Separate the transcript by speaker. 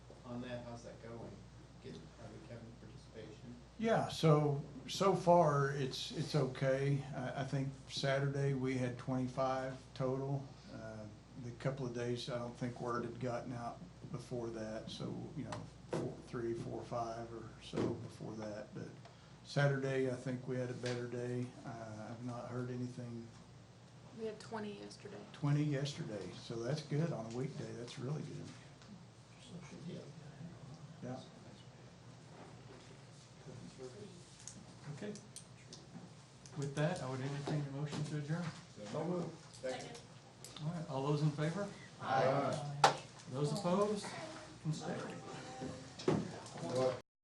Speaker 1: on that, how's that going? Getting, having Kevin participation?
Speaker 2: Yeah, so, so far, it's, it's okay. I, I think Saturday, we had twenty-five total. Uh, The couple of days, I don't think word had gotten out before that, so, you know, four, three, four, five or so before that. But Saturday, I think we had a better day. Uh, I've not heard anything,
Speaker 3: We had twenty yesterday.
Speaker 2: twenty yesterday, so that's good on a weekday, that's really good.
Speaker 1: Yeah.
Speaker 2: Yeah.
Speaker 4: Okay. With that, I would entertain a motion to adjourn.
Speaker 1: So moved. Second.
Speaker 4: All right, all those in favor? Those opposed? Can stay.
Speaker 1: What?